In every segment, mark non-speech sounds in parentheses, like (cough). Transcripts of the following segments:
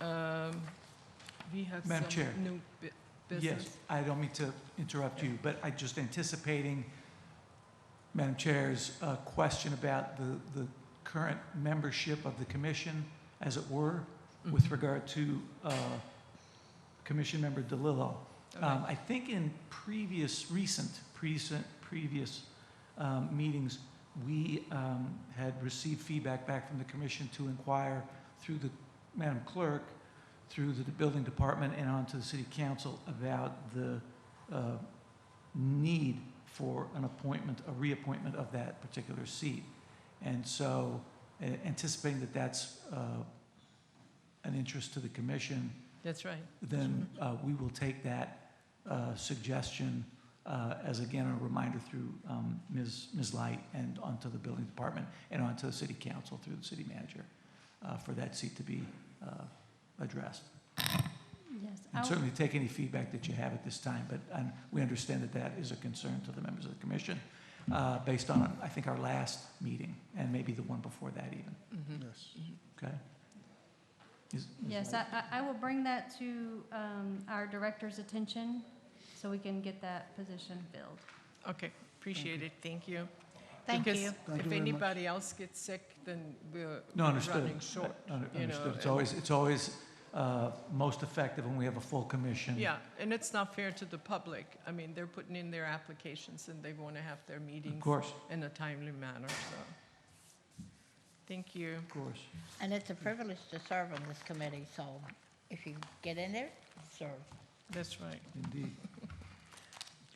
Um, we have Madam Chair. some new bu- business. Yes, I don't mean to interrupt you, but I just anticipating Madam Chair's uh, question about the, the current membership of the commission, as it were, with Mhm. regard to uh, Commission Member DeLillo. All Um, right. I think in previous, recent, recent, previous um, meetings, we um, had received feedback back from the commission to inquire through the, Madam Clerk, through the building department and on to the city council about the uh, need for an appointment, a reappointment of that particular seat. And so a- anticipating that that's uh, an interest to the commission, That's right. then uh, we will take that uh, suggestion uh, as, again, a reminder through um, Ms. Ms. Light and onto the building department and onto the city council through the city manager uh, for that seat to be uh, addressed. Yes, I And w- certainly take any feedback that you have at this time, but um, we understand that that is a concern to the members of the commission uh, based on, I think, our last meeting and maybe the one before that even, Mhm. Yes. okay? Is- Ms. yes, I, Light? I- I will bring that to um, our director's attention so we can get that position filled. Okay, appreciate it, thank you. Thank Because you. Thank if you very much. anybody else gets sick, then we're No, we're understood. running short. Uh, under- you know, Understood. It's and- always, it's always uh, most effective when we have a full commission. Yeah, and it's not fair to the public. I mean, they're putting in their applications and they want to have their Of meetings course, in a timely manner, so. Thank you. of course. And it's a privilege to serve on this committee, so if you get in there, serve. That's right. Indeed.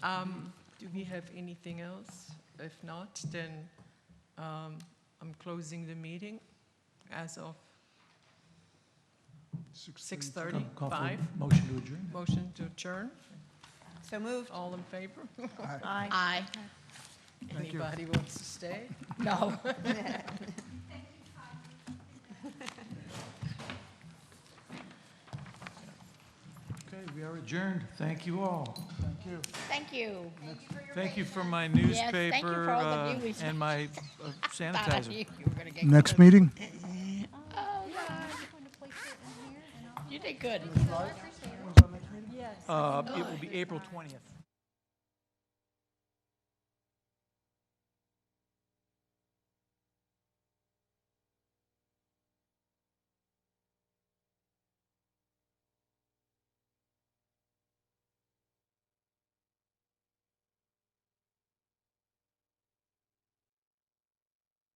Um, Do we have anything else? If not, then um, I'm closing the meeting as of 6:30, Call- call for a 5. Motion to adjourn. Motion to adjourn. So moved. All in favor? Aye. you. Anybody wants to stay? No. Okay, we are adjourned. Thank you all. Thank you. Thank you. Thank you for my Yes, thank you for newspaper all the uh, news. and my uh, (laughs) Thought I sanitizer. knew you were gonna get Next close. meeting? Oh, God. You did good. Uh, It will be April 20th.